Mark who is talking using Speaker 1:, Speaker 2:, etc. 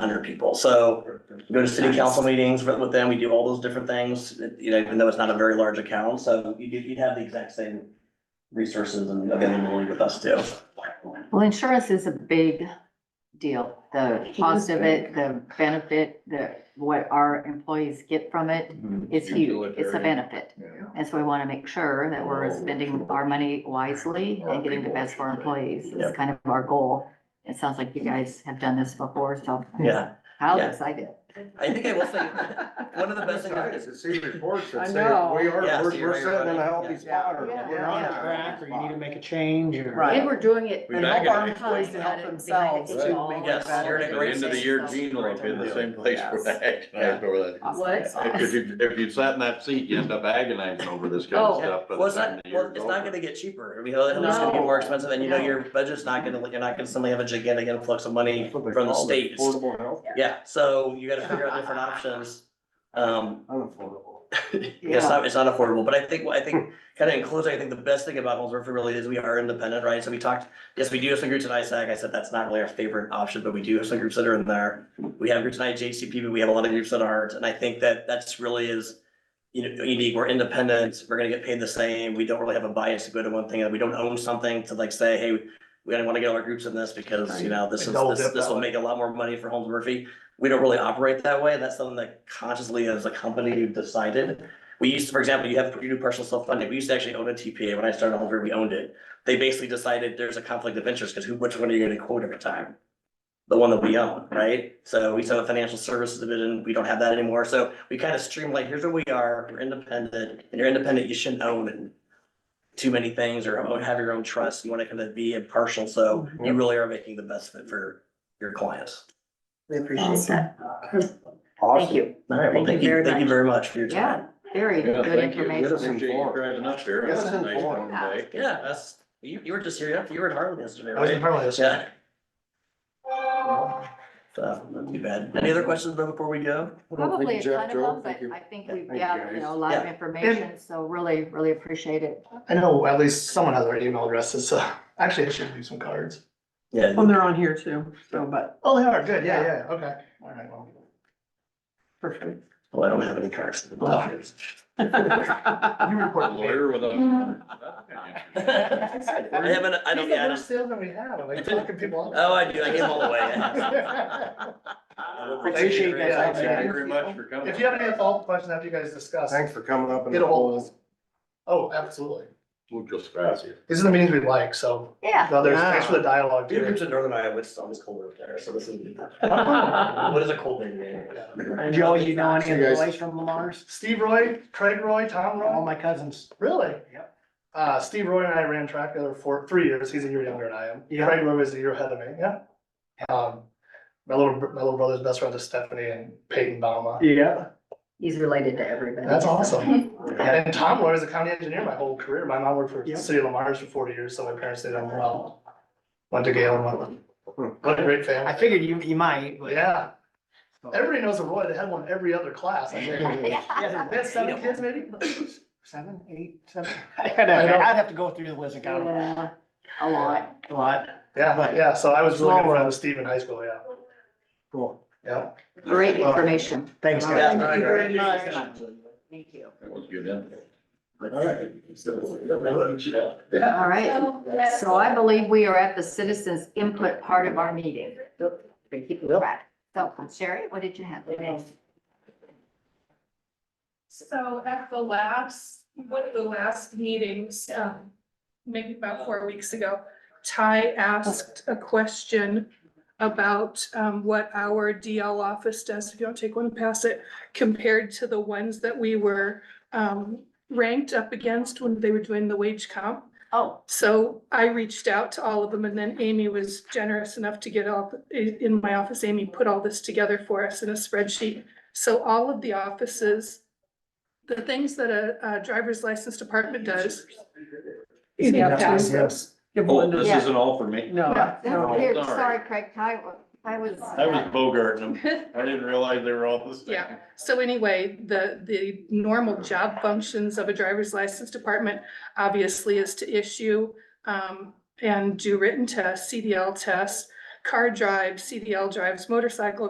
Speaker 1: hundred people, so go to city council meetings with with them, we do all those different things, you know, even though it's not a very large account, so you you'd have the exact same resources and availability with us too.
Speaker 2: Well, insurance is a big deal, the cost of it, the benefit, the, what our employees get from it
Speaker 3: Mm-hmm.
Speaker 2: is huge, it's a benefit. And so we want to make sure that we're spending our money wisely and getting the best for our employees, is kind of our goal. It sounds like you guys have done this before, so.
Speaker 1: Yeah,
Speaker 2: How
Speaker 1: Yeah.
Speaker 2: excited.
Speaker 1: I think I will say, one of the best things. I-
Speaker 3: Guys, to see reports
Speaker 4: I
Speaker 3: that say, we
Speaker 4: know.
Speaker 3: are,
Speaker 1: Yeah,
Speaker 3: we're,
Speaker 1: see,
Speaker 3: we're
Speaker 1: right,
Speaker 3: sitting in a
Speaker 1: right,
Speaker 3: healthy
Speaker 1: yeah.
Speaker 3: spot,
Speaker 5: Oh,
Speaker 3: or
Speaker 4: Yeah.
Speaker 3: we're
Speaker 4: Yeah.
Speaker 3: on
Speaker 4: Yeah.
Speaker 3: a
Speaker 6: track or you need to
Speaker 3: spot.
Speaker 6: make a change or.
Speaker 4: Right.
Speaker 2: They were doing it.
Speaker 5: We back it up.
Speaker 1: Yes, you're in a
Speaker 5: At the
Speaker 1: great
Speaker 5: end of the year, Gene will be in the same place
Speaker 4: Yes.
Speaker 5: we're agonizing over that.
Speaker 2: What?
Speaker 5: If you, if you sat in that seat, you end up agonizing over this kind
Speaker 2: Oh.
Speaker 5: of
Speaker 1: Yeah,
Speaker 5: stuff. by the
Speaker 1: well, it's
Speaker 5: time
Speaker 1: not,
Speaker 5: the
Speaker 1: well,
Speaker 5: year's
Speaker 1: it's not
Speaker 5: over.
Speaker 1: gonna get cheaper, I mean, it's gonna be
Speaker 4: No.
Speaker 1: more expensive, and you know,
Speaker 2: No.
Speaker 1: your budget's not gonna, you're not gonna suddenly have a gigantic influx of money
Speaker 3: That's what they
Speaker 1: from the
Speaker 3: call it,
Speaker 1: state, It's-
Speaker 3: Affordable health,
Speaker 1: yeah, so you gotta figure out different options. Um,
Speaker 3: unaffordable.
Speaker 1: Yeah, It's not, it's not affordable, but I think, I think, kind of in closing, I think the best thing about Holmes Murphy really is we are independent, right? So we talked, yes, we do have some groups in ISAC. I said that's not really our favorite option, but we do have some groups that are in there. We have groups in IJCP, but we have a lot of groups that aren't. And I think that that's really is, you know, unique. We're independent. We're gonna get paid the same. We don't really have a bias to go to one thing. and We don't own something to like say, hey, we don't want to get all our groups in this because, you know, this is,
Speaker 3: Double
Speaker 1: this,
Speaker 3: dip
Speaker 1: this
Speaker 3: that
Speaker 1: will
Speaker 3: way.
Speaker 1: make a lot more money for Holmes Murphy. We don't really operate that way. That's something that consciously as a company decided. We used, to, for example, you have, you do partial self-funding, we used to actually own a TPA, when I started Home Group, we owned it. They basically decided there's a conflict of interest, because who, which one are you gonna quote every time? The one that we own, right? So we used to have a financial services division, we don't have that anymore, so we kind of streamlined, here's what we are, we're independent, and you're independent, you shouldn't own too many things, or own- have your own trust, you wanna kind of be impartial, so
Speaker 6: Mm-hmm.
Speaker 1: you really are making the best fit for your clients.
Speaker 4: We appreciate that.
Speaker 3: Awesome.
Speaker 4: you.
Speaker 1: All right, well,
Speaker 4: Thank
Speaker 1: thank
Speaker 4: you
Speaker 1: you,
Speaker 4: very
Speaker 1: thank you
Speaker 4: much.
Speaker 1: very much for your
Speaker 2: Yeah,
Speaker 1: time.
Speaker 2: very
Speaker 5: Yeah,
Speaker 2: good
Speaker 5: thank you.
Speaker 2: information.
Speaker 3: Yes.
Speaker 5: Appreciate you driving up here.
Speaker 3: Yes,
Speaker 5: That's a nice
Speaker 3: informed.
Speaker 5: warm day.
Speaker 1: Yeah, that's, you, you were just here, you were in Harlem yesterday,
Speaker 6: I was
Speaker 1: right?
Speaker 6: in Harlem yesterday.
Speaker 1: Yeah. So, not too bad. Any other questions before we go?
Speaker 2: Probably a ton
Speaker 3: Jeff,
Speaker 2: of
Speaker 3: Joe.
Speaker 2: them, but
Speaker 3: Thank you.
Speaker 2: I think we've
Speaker 3: Thank you,
Speaker 2: got, you
Speaker 3: guys.
Speaker 2: know, a lot of information, so really, really appreciate it.
Speaker 6: I know at least someone has our email addresses, so actually I should leave some cards.
Speaker 1: Yeah.
Speaker 4: Well, they're on here too, so, but
Speaker 6: Oh, they are, good, yeah, yeah, okay, all right, well.
Speaker 4: perfect.
Speaker 1: Well, Oh, I don't have any cards.
Speaker 6: You report later.
Speaker 5: Lawyer with a.
Speaker 1: I haven't, I don't, yeah, I don't,
Speaker 6: Salesman we have, I'm like talking people up.
Speaker 1: oh, I do, I gave them all away.
Speaker 6: Appreciate that.
Speaker 5: Thank you very much for coming.
Speaker 6: If you have any follow-up questions after you guys discuss,
Speaker 3: Thanks for coming up and.
Speaker 6: get a hold of us. Oh, absolutely.
Speaker 5: We'll just pass you.
Speaker 6: These are the meetings we like, so,
Speaker 2: Yeah,
Speaker 6: no, there's, thanks for the dialogue.
Speaker 1: Do you
Speaker 6: too.
Speaker 1: groups in Northern Iowa, it's always cold over there, so this is.
Speaker 6: Oh.
Speaker 1: What is a cold day there?
Speaker 4: Joe,
Speaker 6: Joe,
Speaker 4: you know any of
Speaker 3: You
Speaker 4: the
Speaker 3: guys-
Speaker 4: boys from Lamar's?
Speaker 6: Steve Roy, Craig Roy, Tom
Speaker 4: All
Speaker 6: Roy,
Speaker 4: my cousins.
Speaker 6: really?
Speaker 4: Yep.
Speaker 6: Uh, Steve Roy and I ran track together for three years, he's a year younger than I am,
Speaker 4: Yeah.
Speaker 6: Craig Roy was a year ahead of me, yeah. Um, my little, br- my little brother's best friend is Stephanie and Peyton Bauma,
Speaker 4: Yeah.
Speaker 2: he's related to everybody.
Speaker 6: that's
Speaker 2: so.
Speaker 6: awesome. And Tom Roy was a county engineer my whole career, my mom worked for
Speaker 4: Yep.
Speaker 6: City of Lamar's for forty years, so my parents did them well. Went to Galen, went- what a great
Speaker 4: Hmm. I
Speaker 6: family,
Speaker 4: figured you, you might, but
Speaker 6: yeah. Everybody knows a Roy, they had one every other class, I think.
Speaker 2: Yeah.
Speaker 6: They had seven kids maybe?
Speaker 4: seven, eight, seven. I'd have,
Speaker 6: I know.
Speaker 4: I'd have to go through the list and count them.
Speaker 2: Yeah, A lot.
Speaker 4: A lot.
Speaker 6: Yeah,
Speaker 4: But-
Speaker 6: yeah, so I was really good
Speaker 4: Small
Speaker 6: friends with Steve in high school, yeah.
Speaker 4: Cool.
Speaker 6: Yeah.
Speaker 2: Great information.
Speaker 4: Thanks,
Speaker 2: All
Speaker 4: guys.
Speaker 2: right.
Speaker 1: Thank you very much.
Speaker 2: Thank you.
Speaker 5: That was good, huh?
Speaker 2: All right, so I believe we are at the citizens input part of our meeting. We keep it right. So Sherry, what did you have?
Speaker 7: So at the last, one of the last meetings, um, maybe about four weeks ago, Ty asked a question about, um, what our DL office does, if you don't take one, pass it, compared to the ones that we were, um, ranked up against when they were doing the wage comp.
Speaker 2: Oh,
Speaker 7: So I reached out to all of them and then Amy was generous enough to get all, in in my office, Amy put all this together for us in a spreadsheet. So all of the offices, the things that a, a driver's license department does.
Speaker 4: You
Speaker 7: Yeah,
Speaker 4: have to, yes.
Speaker 7: pass those.
Speaker 5: Oh, this isn't all for me.
Speaker 4: No,
Speaker 2: that was
Speaker 4: no.
Speaker 2: weird.
Speaker 5: sorry.
Speaker 2: Sorry, Craig. Ty, I was.
Speaker 5: I was bogarting them. I didn't realize they were all the same.
Speaker 7: Yeah. So anyway, the, the normal job functions of a driver's license department obviously is to issue um, and do written tests, CDL tests, car drives, CDL drives, motorcycle